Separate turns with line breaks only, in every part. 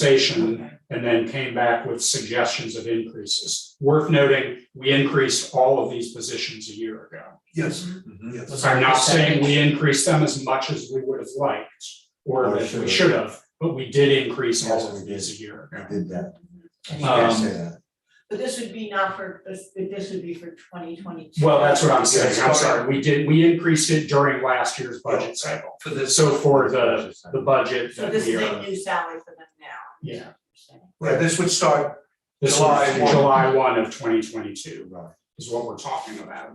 compensation and then came back with suggestions of increases. Worth noting, we increased all of these positions a year ago.
Yes,
Was
Mm-hmm.
yes.
our
I'm not saying we
percentage-
increased them as much as we would have liked or
Or
that we
should've.
should have, but we did increase all
Oh, Yes,
of
we did.
these a year ago.
Did that. I should
Um,
say that.
But this would be not for, this, but this would be for twenty twenty-two.
Well, that's what I'm saying.
Yes. Oh,
I'm sorry. We did, we increased it during last year's budget cycle.
For this,
So for the, the budget
So
that
this
we
is a
are,
new salary for them now.
Yeah.
yeah, this would start,
this
July
was
one.
July one of twenty twenty-two
Right.
is what we're talking about.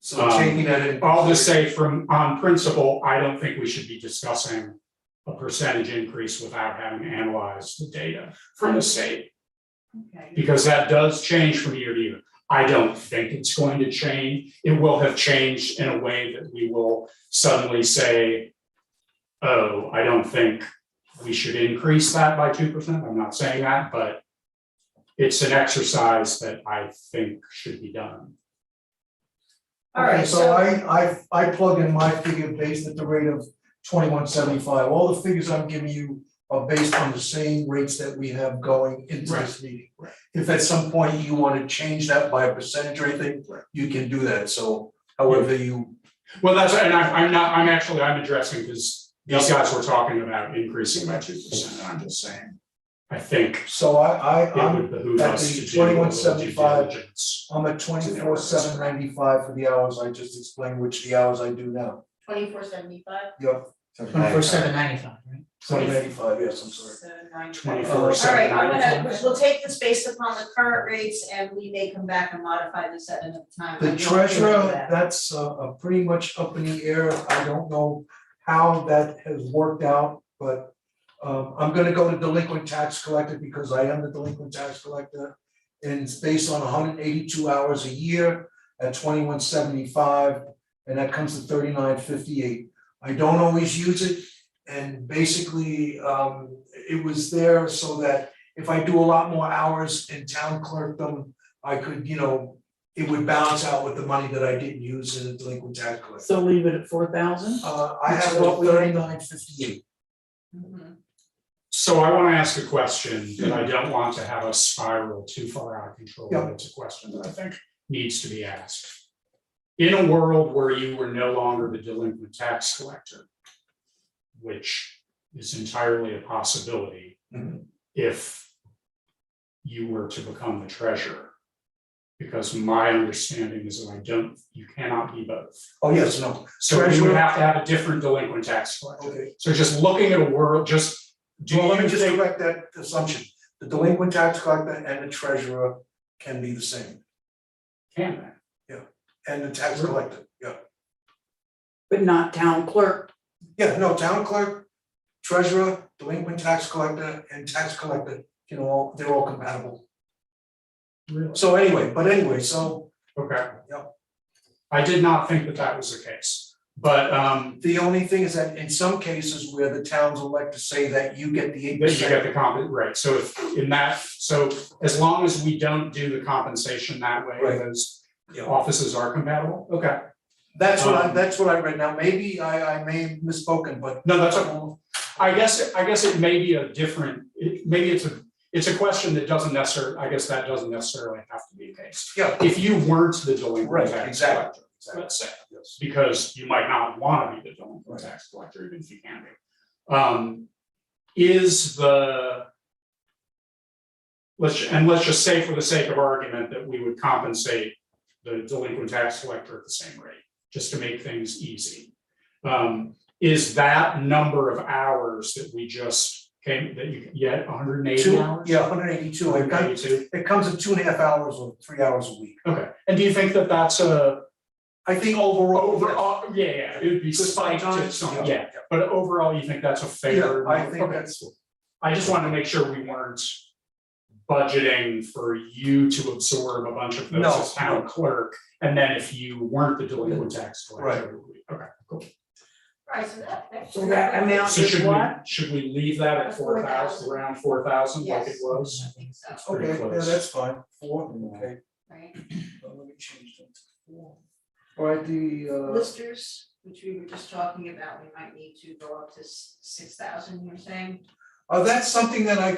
so
Um,
taking that in.
I'll just say from, on principle, I don't think we should be discussing a percentage increase without having analyzed the data from the state.
Okay.
because that does change from year to year. I don't think it's going to change. It will have changed in a way that we will suddenly say, oh, I don't think we should increase that by two percent. I'm not saying that, but it's an exercise that I think should be done.
All right,
Okay, so I, I, I plug in my figure based at the rate of twenty-one seventy-five. All the figures I'm giving you are based on the same rates that we have going into this meeting.
right.
If at some point you wanna change that by a percentage or anything, you can do that, so however you,
Well, that's, and I, I'm not, I'm actually, I'm addressing because these guys were talking about increasing by two percent. I'm just saying, I think
so I, I,
it
I'm,
would behoove
at
us
the
to do a little due
21.75
diligence.
I'm at twenty-four seven ninety-five for the hours I just explained, which the hours I do now.
twenty-four seventy-five,
Yep,
Twenty-four seven ninety-five, right?
seven ninety-five, yes, I'm sorry.
seven nine.
Twenty-four,
All right,
seven,
I'm
nine.
gonna, we'll take this based upon the current rates and we may come back and modify this at another time. I
The
don't feel
treasurer,
that.
that's uh uh, pretty much up in the air, I don't know how that has worked out, but. Um I'm gonna go to delinquent tax collector because I am the delinquent tax collector. And it's based on hundred eighty-two hours a year at twenty-one seventy-five, and that comes to thirty-nine fifty-eight. I don't always use it, and basically, um it was there so that if I do a lot more hours in town clerkdom, I could, you know, it would balance out with the money that I didn't use in the delinquent tax collector.
So leave it at four thousand?
Uh, I
Which
have
is what we-
thirty-nine fifty-eight.
Mhm.
So I want to ask a question that
Hmm.
I don't want to have us spiral too far out of control. but It's a question that I think needs to be asked. In a world where you were no longer the delinquent tax collector, which is entirely a possibility
Mhm.
if you were to become the treasurer. Because my understanding is that I don't, you cannot be both.
Oh, yes, no,
So we would
Treasurer-
have to have a different delinquent tax collector.
okay.
So just looking at a world, just do
Well, let me
you
just
think,
correct that assumption. The delinquent tax collector and the treasurer can be the same,
can that?
and the tax collector, yeah.
But not town clerk,
Yeah, no, town clerk, treasurer, delinquent tax collector, and tax collector, you know, all- they're all compatible.
Really?
So anyway, but anyway, so
Okay.
Yep.
I did not think that that was the case, but um,
the only thing is that in some cases where the towns elect to say that you get the eight
that you
percent.
get the comp, right, so if in that, so as long as we don't do the compensation that way,
Right.
those
Yeah.
offices are compatible, okay,
That's what I,
Um,
that's what I read now, maybe I, I may have misspoken, but.
no, that's okay. I guess, I guess it may be a different, it- maybe it's a, it's a question that doesn't necessarily, I guess that doesn't necessarily have to be the case.
Yeah.
If you weren't the delinquent
Right,
tax
exactly,
collector, let's say, because you might not want to be the delinquent tax collector, even if you can be. Um, is the. Let's, and let's just say for the sake of argument that we would compensate the delinquent tax collector at the same rate, just to make things easy. Um, is that number of hours that we just came, that you get hundred and eighty
Two,
hours?
yeah, hundred eighty-two, it comes,
182?
it comes in two and a half hours or three hours a week.
Okay, and do you think that that's a
I think overall, yes.
overall, yeah, yeah, it would be
Just five
spiked to
times?
some,
Yeah.
yeah, but overall, you think that's a fair?
Yeah, I
number?
think
Okay.
that's-
I just wanted to make sure we weren't budgeting for you to absorb a bunch of those
No,
as town clerk, and then if you weren't the delinquent tax collector. it would be- Okay, cool.
All right, so that, that's.
so that amount
So
is
should we,
what?
should we leave that at four thousand,
4,000.
around four thousand like it
Yes.
was?
I think so.
It's pretty
okay, yeah,
close.
that's fine, four, okay,
Right,
Uh, let me change that to four. All right, the, uh,
listers, which we were just talking about, we might need to go up to six thousand, you're saying?
Uh, that's something that I